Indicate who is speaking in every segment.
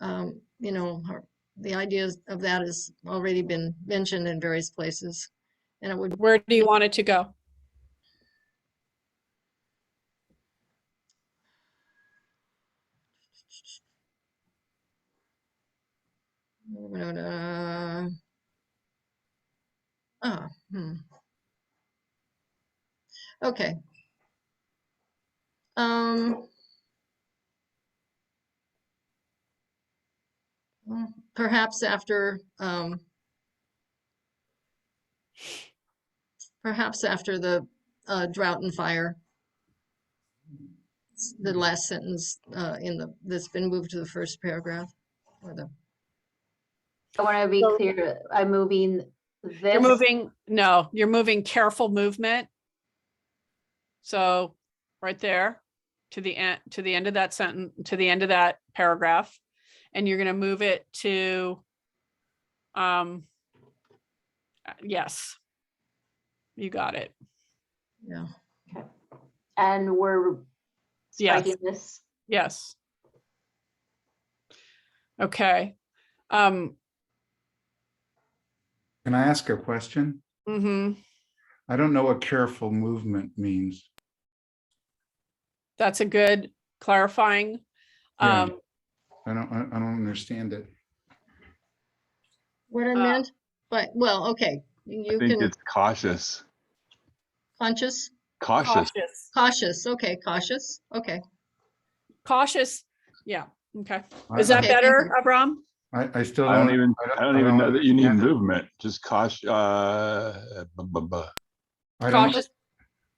Speaker 1: um, you know, her- the ideas of that has already been mentioned in various places. And it would,
Speaker 2: Where do you want it to go?
Speaker 1: uh, ah, hmm. Okay. Um. well, Perhaps after, um, perhaps after the uh, drought and fire. S- The last sentence uh, in the, that's been moved to the first paragraph or the
Speaker 3: I want to be
Speaker 2: So-
Speaker 3: clear, I'm moving
Speaker 2: You're
Speaker 3: this,
Speaker 2: moving, no, you're moving careful movement. So right there to the end, to the end of that sentence, to the end of that paragraph. And you're going to move it to um uh, yes. You got it.
Speaker 1: Yeah,
Speaker 3: and we're
Speaker 2: Yes.
Speaker 3: striking this.
Speaker 2: Yes. Okay. Um,
Speaker 4: Can I ask a question?
Speaker 2: hmm
Speaker 4: I don't know what careful movement means.
Speaker 2: that's a good clarifying.
Speaker 4: Yeah.
Speaker 2: Um,
Speaker 4: I don't, I I don't understand it.
Speaker 1: what I
Speaker 2: Uh,
Speaker 1: meant, but, well, okay, you
Speaker 5: I think
Speaker 1: can,
Speaker 5: it's cautious,
Speaker 1: conscious,
Speaker 5: cautious.
Speaker 2: cautious,
Speaker 1: cautious, okay, cautious, okay.
Speaker 2: cautious. Yeah, okay.
Speaker 4: I-
Speaker 2: Is that
Speaker 1: Okay, thank
Speaker 2: better,
Speaker 1: you.
Speaker 2: Abram?
Speaker 4: I, I still
Speaker 5: I
Speaker 4: don't.
Speaker 5: don't even, I don't even know that you need
Speaker 4: understand it.
Speaker 5: movement, just caution, uh, bu- bu- bu-
Speaker 4: I don't-
Speaker 2: Cautious,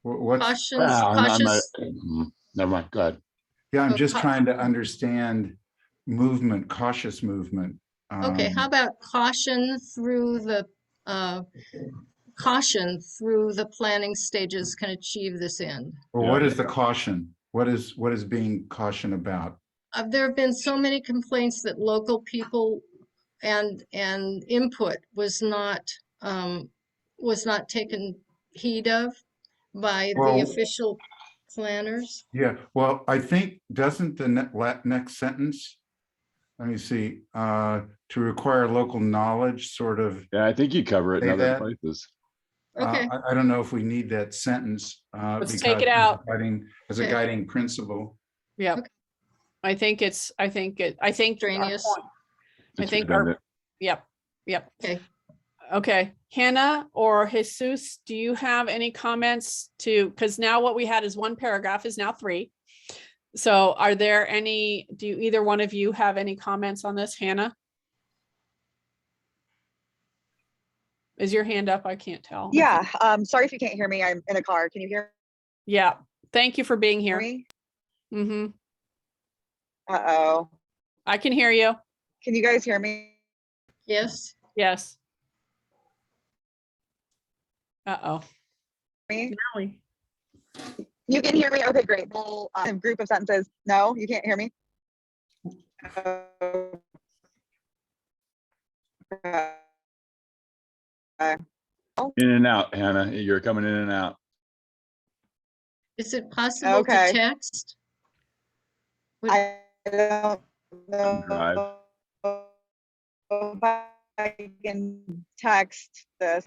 Speaker 4: wh- What's,
Speaker 1: Cautions,
Speaker 5: Ah, I'm not-
Speaker 1: cautious,
Speaker 5: mm, Never mind, go ahead.
Speaker 4: yeah, I'm
Speaker 1: so
Speaker 4: just
Speaker 1: cau-
Speaker 4: trying to understand movement, cautious movement.
Speaker 1: okay,
Speaker 4: um,
Speaker 1: how about caution through the, uh, caution through the planning stages can achieve this end?
Speaker 4: Or what is the caution? What is, what is being caution about?
Speaker 1: Uh, there have been so many complaints that local people and, and input was not, um, was not taken heed of by
Speaker 4: Well-
Speaker 1: the official planners.
Speaker 4: Yeah, well, I think, doesn't the ne- la- next sentence? Let me see, uh, to require local knowledge, sort of
Speaker 5: Yeah, I think you cover it in
Speaker 4: Say
Speaker 5: other
Speaker 4: that.
Speaker 5: places.
Speaker 4: Uh,
Speaker 1: Okay,
Speaker 4: I, I don't know if we need that sentence. uh,
Speaker 2: Let's take
Speaker 4: because
Speaker 2: it
Speaker 4: as a
Speaker 2: out.
Speaker 4: guiding- As a
Speaker 1: Okay.
Speaker 4: guiding principle.
Speaker 2: yeah.
Speaker 1: Okay.
Speaker 2: I think it's, I think it, I think. our
Speaker 1: Extraneous.
Speaker 2: point- I
Speaker 5: It's
Speaker 2: think our-
Speaker 5: redundant.
Speaker 2: Yep, yep.
Speaker 1: okay.
Speaker 2: Okay, Hannah or Jesus, do you have any comments to, because now what we had is one paragraph is now three. So are there any, do you, either one of you have any comments on this? Hannah? Is your hand up? I can't tell.
Speaker 6: Yeah, um, sorry if you can't hear me. I'm in a car. Can you hear
Speaker 2: Yeah, thank you for being here.
Speaker 6: me?
Speaker 2: hmm
Speaker 6: Uh-oh.
Speaker 2: I can hear you.
Speaker 6: Can you guys hear me?
Speaker 1: Yes,
Speaker 2: Yes. Uh-oh.
Speaker 6: Me?
Speaker 2: Nelly.
Speaker 6: You can hear me? Okay, great. Well, um, group of sentences. No, you can't hear me? Oh. Uh,
Speaker 5: In and out, Hannah, you're coming in and out.
Speaker 1: is it possible to
Speaker 6: Okay.
Speaker 1: text? Would-
Speaker 6: I don't
Speaker 5: Drive.
Speaker 6: know. if I can text this.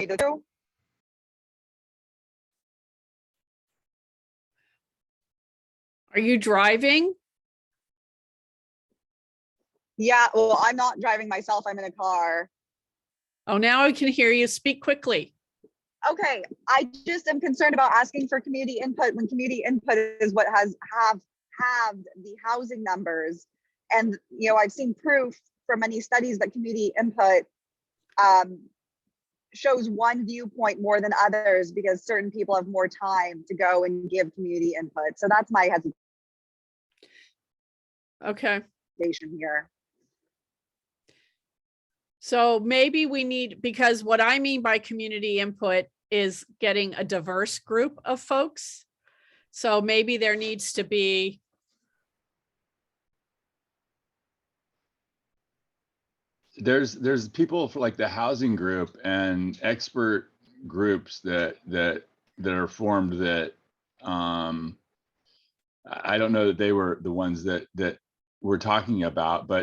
Speaker 2: Are you driving?
Speaker 6: Yeah, well, I'm not driving myself. I'm in a car.
Speaker 2: Oh, now I can hear you. Speak quickly.
Speaker 6: Okay, I just am concerned about asking for community input when community input is what has have halved the housing numbers. And, you know, I've seen proof from many studies that community input um, shows one viewpoint more than others because certain people have more time to go and give community input. So that's my
Speaker 2: Okay.
Speaker 6: hesitation here.
Speaker 2: So maybe we need, because what I mean by community input is getting a diverse group of folks. So maybe there needs to be.
Speaker 5: There's, there's people for like the housing group and expert groups that, that, that are formed that, um, I I don't know that they were the ones that, that we're talking about, but